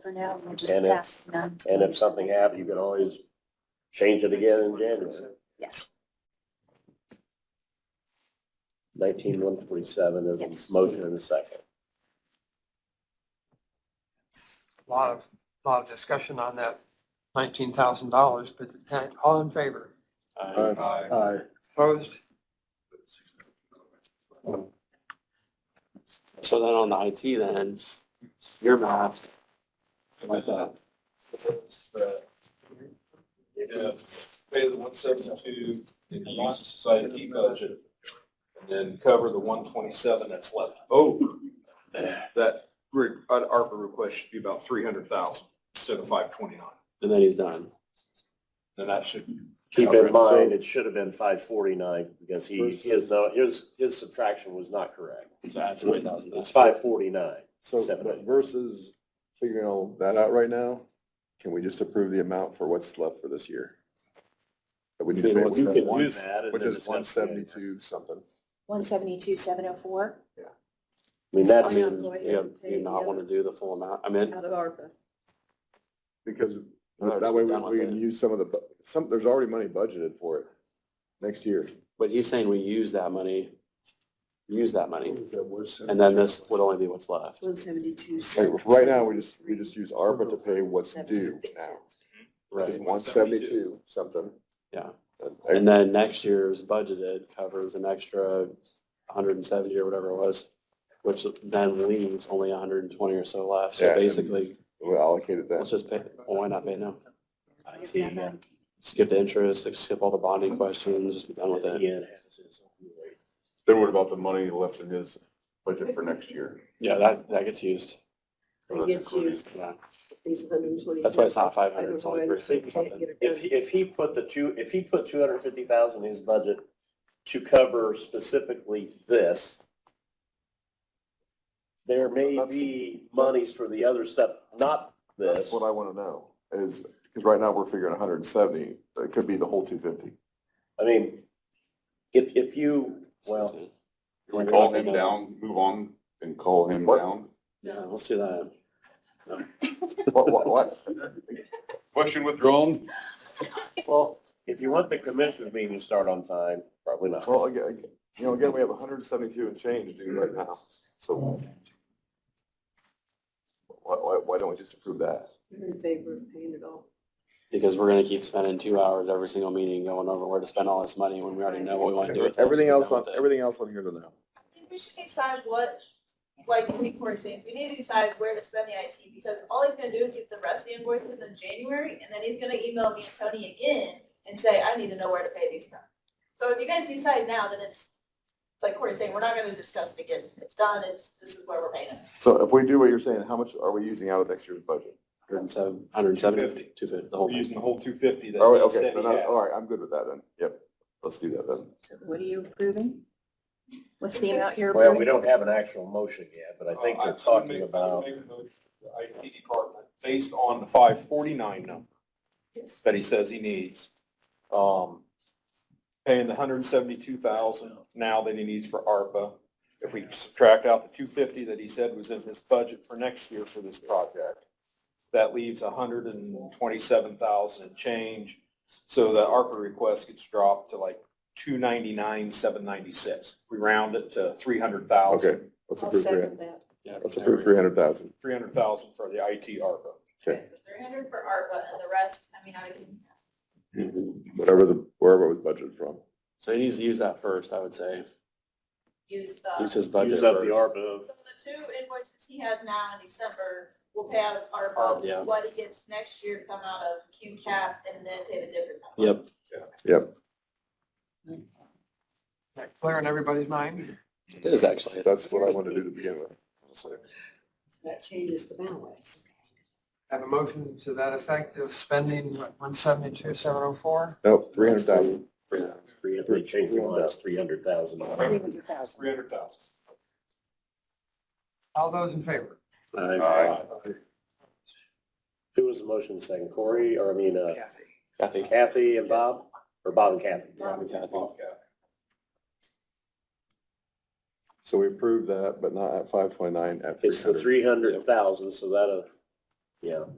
for now, we'll just And if- pass it on. to And if leadership. something happens, you can always change it again in January. Yes, Nineteen one forty-seven is Yes. a motion and a second. lot of, lot of discussion on that nineteen thousand dollars, but uh, all in favor? Aye. Opposed? So then on the IT then, your math. Like that. Pay the one seventy-two in the Humane Society budget and then cover the one twenty-seven that's left over. That, re- uh, ARPA request should be about three hundred thousand instead of five twenty-nine. And then he's done. And that should, Keep in Okay, so- mind, it should have been five forty-nine because he, his, no- his, his subtraction was not correct. So add twenty thousand. It's five forty-nine. So Seven but eight. versus figuring all that out right now, can we just approve the amount for what's left for this year? That we need to You pay, can- which is You can do one- that and which then is one discuss later. seventy-two something. one seventy-two, seven oh four. I mean, that's, I mean, you, you not want to do the full amount. I mean, Out of ARPA. Because No, that way just we done with we can it. use some of the, bu- some, there's already money budgeted for it next year. but he's saying we use that money, use that money, and And then this would only be what's left. One seventy-two. oh Right now, we just, we just use ARPA to pay what's due now. Right. One seventy-two something. Yeah. And- And then next year's budgeted covers an extra hundred and seventy or whatever it was, which then leaves only hundred and twenty or so left. Yeah, So and- basically, We allocated let's that. just pay, well, why not pay now? IT, yeah. Skip the interest, skip all the bonding questions, just be done with it. Ian has his own way. Then what about the money left in his budget for next year? Yeah, that, that gets used. It gets used, Yeah. these hundred and twenty. That's why it's not five hundred, it's only three sixty something. If, he- if he put the two, if he put two hundred fifty thousand in his budget to cover specifically this, there may That's- be monies for the other stuff, not That's this. what I want to know, is, because right now we're figuring hundred and seventy, it could be the whole two fifty. I mean, if, if you, well, Can we call him down, move on and call him What? down. Yeah, let's do that. What, what, what? Question withdrawn? well, if you want the commissioners meeting to start on time, probably not. Well, again, again, you know, again, we have hundred and seventy-two and change due right now, so. Why, why, why don't we just approve that? You're in favor of paying it all. Because we're gonna keep spending two hours every single meeting going over where to spend all this money when we already know what we wanna do. with it. Everything else on, Done with it. everything else on here to now. think we should decide what, like we were saying, we need to decide where to spend the IT because all he's gonna do is get the rest of the invoices in January and then he's gonna email me and Tony again and say, I need to know where to pay these from. So if you guys decide now, then it's, like Corey's saying, we're not gonna discuss it again. It's done, it's, this is where we're paying it. So if we do what you're saying, how much are we using out of next year's budget? Hundred and seven, hundred and seventy, 250. two fifty, the whole thing. the whole two fifty All right, okay, then I, all right, I'm good with that then, yep, let's do that then. So what are you approving? What's the amount you're Well, we approving? don't have an actual motion yet, but I think Uh, they're would talking make- I would about, make a motion to the IT department, based on the five forty-nine number that he says he needs, um, paying the hundred and seventy-two thousand now that he needs for ARPA. If we subtract out the two fifty that he said was in his budget for next year for this project, that leaves a hundred and twenty-seven thousand and change. So the ARPA request gets dropped to like two ninety-nine, seven ninety-six. We round it to three hundred thousand. Okay, let's approve three, that. Yeah, let's every- approve three hundred thousand. three hundred thousand for the IT ARPA. Okay. So three hundred for ARPA and the rest, I mean, I can. Whatever the, wherever it was budgeted from. So he needs to use that first, I would say. use Use the, his budget. use up the first. ARPA. so the two invoices he has now in December will pay out of Uh, yeah. ARPA. What he gets next year come out of Q cap and then pay the difference. out of ARPA. Yep, That Clear in everybody's mind? it is actually. That's what I wanted to do to begin with. honestly. That changes the balance. Have a motion to that effect of spending one seventy-two, seven oh four? Nope, three hundred thousand. Three, they changed the line, it's three hundred thousand. Three hundred thousand. Three hundred thousand. All those in favor? Who was the motion second, Corey, or I mean, uh, Kathy. Kathy. Kathy and Bob, or Bob and Kathy? Yeah, Kathy. So we approved that, but not at five twenty-nine, at three It's the hundred. three hundred thousand, so uh, that'll,